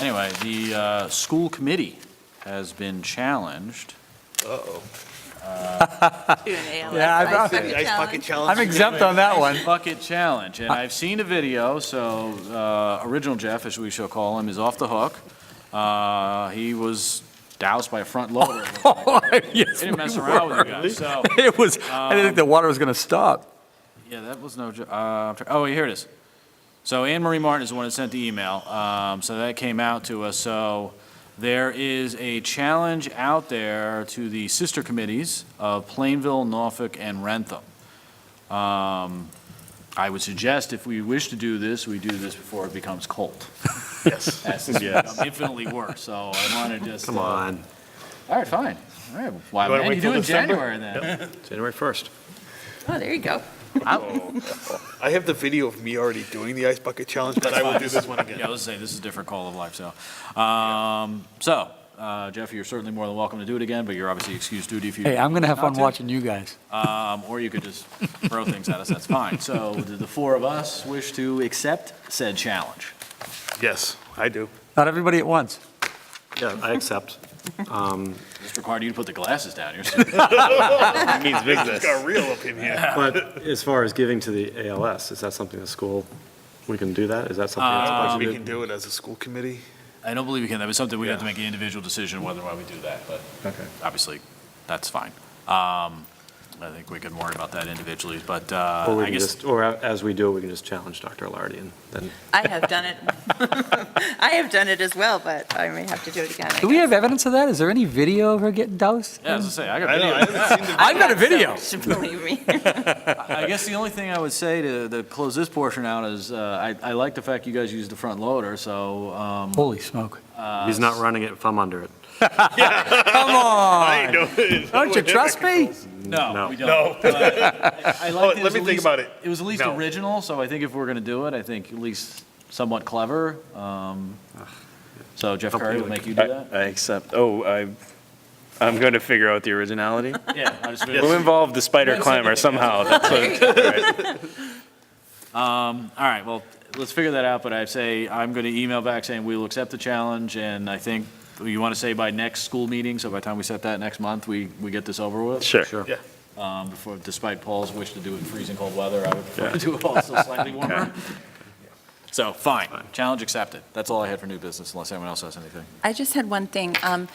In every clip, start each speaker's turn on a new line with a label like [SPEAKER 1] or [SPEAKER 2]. [SPEAKER 1] Anyway, the uh, school committee has been challenged.
[SPEAKER 2] Uh-oh.
[SPEAKER 3] to an ALS.
[SPEAKER 4] Yeah, I've-
[SPEAKER 3] ice bucket
[SPEAKER 4] I've-
[SPEAKER 2] Ice bucket
[SPEAKER 3] challenge.
[SPEAKER 2] challenge.
[SPEAKER 4] I'm exempt on that one.
[SPEAKER 1] Bucket challenge, and I've seen a video, so uh, original Jeff, as we shall call him, is off the hook. Uh, He was doused by a front loader. They
[SPEAKER 4] Yes,
[SPEAKER 1] didn't mess
[SPEAKER 4] we
[SPEAKER 1] around Um, with you
[SPEAKER 4] were.
[SPEAKER 1] guys, so,
[SPEAKER 4] It was, I didn't think the water was going to stop.
[SPEAKER 1] yeah, that was no, jo- uh, I'm try- oh, here it is. So Anne Marie Martin is the one that sent the email, um, so that came out to us, so there is a challenge out there to the sister committees of Plainville, Norfolk, and Rentham. Um, I would suggest if we wish to do this, we do this before it becomes cold.
[SPEAKER 2] Yes.
[SPEAKER 1] That's infinitely worse, so I want to just.
[SPEAKER 2] Come
[SPEAKER 1] uh,
[SPEAKER 2] on.
[SPEAKER 1] All right, fine, all right. Why,
[SPEAKER 2] You wanna
[SPEAKER 1] man,
[SPEAKER 2] wait
[SPEAKER 1] you
[SPEAKER 2] till
[SPEAKER 1] do it in
[SPEAKER 2] December?
[SPEAKER 1] January then.
[SPEAKER 2] January 1st.
[SPEAKER 3] Oh, there you go.
[SPEAKER 2] I have the video of me already doing the ice bucket challenge, but I will do this one
[SPEAKER 1] Yeah,
[SPEAKER 2] again.
[SPEAKER 1] let's say this is a different call of life, so. Um, so, uh, Jeff, you're certainly more than welcome to do it again, but you're obviously excused duty if you.
[SPEAKER 4] Hey, I'm going to have
[SPEAKER 1] not
[SPEAKER 4] fun watching you guys.
[SPEAKER 1] Um, or you could just throw things at us, that's fine. So do the four of us wish to accept said challenge?
[SPEAKER 2] Yes, I do.
[SPEAKER 4] Not everybody at once.
[SPEAKER 5] Yeah, I accept. Um,
[SPEAKER 1] Mr. Carr, you can put the glasses down. You're-
[SPEAKER 2] Means business. Got real up in here.
[SPEAKER 5] But as far as giving to the ALS, is that something the school, we can do that? Is that something
[SPEAKER 1] Uh,
[SPEAKER 5] that's
[SPEAKER 2] Uh, We can
[SPEAKER 5] budgeted?
[SPEAKER 2] do it as a school committee.
[SPEAKER 1] I don't believe we can, that was something we'd have to make an individual decision whether or why we do that, but
[SPEAKER 5] Okay.
[SPEAKER 1] obviously, that's fine. Um, I think we can worry about that individually, but uh,
[SPEAKER 5] Or we
[SPEAKER 1] I
[SPEAKER 5] can
[SPEAKER 1] guess,
[SPEAKER 5] just, or a- as we do, it, we can just challenge Dr. Lardy and then,
[SPEAKER 3] I have done it. I have done it as well, but I may have to do it again. I
[SPEAKER 4] Do we
[SPEAKER 3] guess.
[SPEAKER 4] have evidence of that? Is there any video of her getting doused?
[SPEAKER 1] yeah, as I say, I got video.
[SPEAKER 4] I've got a video.
[SPEAKER 3] So, Believe me.
[SPEAKER 1] I guess the only thing I would say to, to close this portion out is, uh, I, I like the fact you guys used the front loader, so, um,
[SPEAKER 4] Holy smoke.
[SPEAKER 1] Uh,
[SPEAKER 5] he's not running it if I'm under it.
[SPEAKER 4] Come on. Don't
[SPEAKER 2] Don't
[SPEAKER 4] you trust me?
[SPEAKER 1] no,
[SPEAKER 5] No.
[SPEAKER 1] we don't. Uh, I I like
[SPEAKER 2] Oh,
[SPEAKER 1] that it was
[SPEAKER 2] let me
[SPEAKER 1] at
[SPEAKER 2] think
[SPEAKER 1] least-
[SPEAKER 2] about it.
[SPEAKER 1] It was at least
[SPEAKER 2] No.
[SPEAKER 1] original, so I think if we're gonna do it, I think at least somewhat clever, um, so Jeff Curry would make you do
[SPEAKER 6] I
[SPEAKER 1] that?
[SPEAKER 6] I accept, oh, I, I'm going to figure out the originality.
[SPEAKER 1] Yeah. I just-
[SPEAKER 6] We'll involve the spider climber somehow, that's what,
[SPEAKER 1] All right, well, let's figure that out, but I say, I'm going to email back saying we will accept the challenge, and I think, you want to say by next school meeting, so by the time we set that next month, we, we get this over with?
[SPEAKER 6] sure.
[SPEAKER 1] Um, Before, despite Paul's wish to do it in freezing cold weather, I would prefer to do it also slightly warmer. So, fine, challenge accepted. That's all I had for new business, unless anyone else has anything.
[SPEAKER 3] I just had one thing. Um,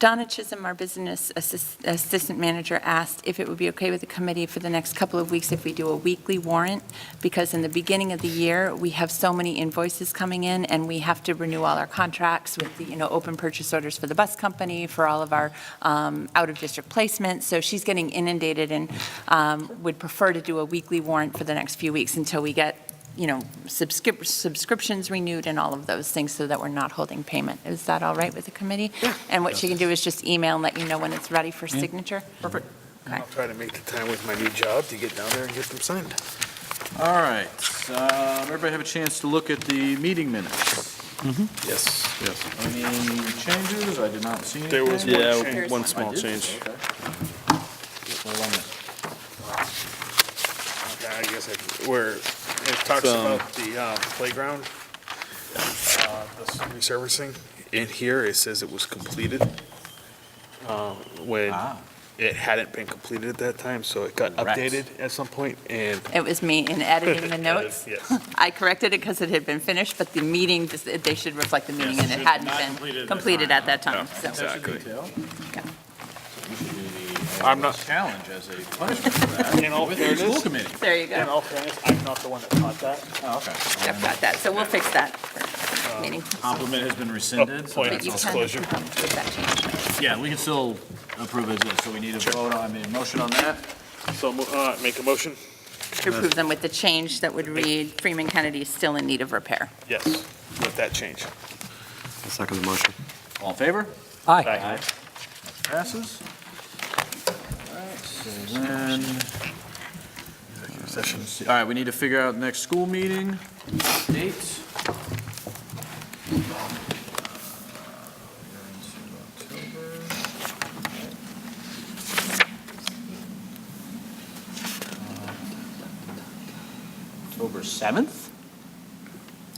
[SPEAKER 3] Donna Chisholm, our business assist- assistant manager, asked if it would be okay with the committee for the next couple of weeks if we do a weekly warrant, because in the beginning of the year, we have so many invoices coming in, and we have to renew all our contracts with, the, you know, open purchase orders for the bus company, for all of our um, out-of-district placements. So she's getting inundated and um, would prefer to do a weekly warrant for the next few weeks until we get you know, subscrip- subscriptions renewed and all of those things so that we're not holding payment. Is that all right with the committee? And what she can do is just email and let you know when it's ready for signature? Perfect.
[SPEAKER 2] I'll try to make the time with my new job to get down there and get them signed.
[SPEAKER 1] All right, um, everybody have a chance to look at the meeting minutes.
[SPEAKER 2] Yes. Yes.
[SPEAKER 1] Any changes? I did not see anything.
[SPEAKER 2] There was one
[SPEAKER 6] Yeah,
[SPEAKER 2] change.
[SPEAKER 6] one small
[SPEAKER 1] I did?
[SPEAKER 6] change.
[SPEAKER 1] Okay. What did I miss?
[SPEAKER 2] Yeah, I guess it, where it talks
[SPEAKER 6] Some-
[SPEAKER 2] about the uh, playground, uh, the resurfacing, in here it says it was completed, uh, when
[SPEAKER 1] Ah.
[SPEAKER 2] it hadn't been completed at that time, so it got
[SPEAKER 1] Correct.
[SPEAKER 2] updated at some point, and.
[SPEAKER 3] It was me in editing the notes.
[SPEAKER 2] Yes.
[SPEAKER 3] I corrected it because it had been finished, but the meeting, just- they should reflect the meeting and it hadn't been completed at that time. So
[SPEAKER 2] Exactly.
[SPEAKER 1] Detail.
[SPEAKER 3] Yeah.
[SPEAKER 1] We should do the
[SPEAKER 2] I'm not-
[SPEAKER 1] challenge as a punishment for that.
[SPEAKER 2] In all
[SPEAKER 1] with the
[SPEAKER 2] fairness-
[SPEAKER 1] school committee.
[SPEAKER 3] there you
[SPEAKER 2] In
[SPEAKER 3] go.
[SPEAKER 2] all fairness, I'm not the one that caught that.
[SPEAKER 1] Oh, okay.
[SPEAKER 3] I've got that. So we'll fix that for meeting.
[SPEAKER 1] Compliment has been rescinded. so
[SPEAKER 2] Point
[SPEAKER 1] that's
[SPEAKER 3] But you
[SPEAKER 1] all-
[SPEAKER 2] of
[SPEAKER 3] can
[SPEAKER 2] disclosure.
[SPEAKER 3] um, make that change.
[SPEAKER 1] Yeah, we can still approve it, so we need a vote on, I mean, a motion on that.
[SPEAKER 2] So, uh, make a motion?
[SPEAKER 3] To approve them with the change that would read Freeman Kennedy is still in need of repair.
[SPEAKER 2] Yes, with that change.
[SPEAKER 5] I second the motion.
[SPEAKER 1] All in favor?
[SPEAKER 4] Hi.
[SPEAKER 1] Passes. All right, so then- All right, we need to figure out next school meeting, dates. October 7th?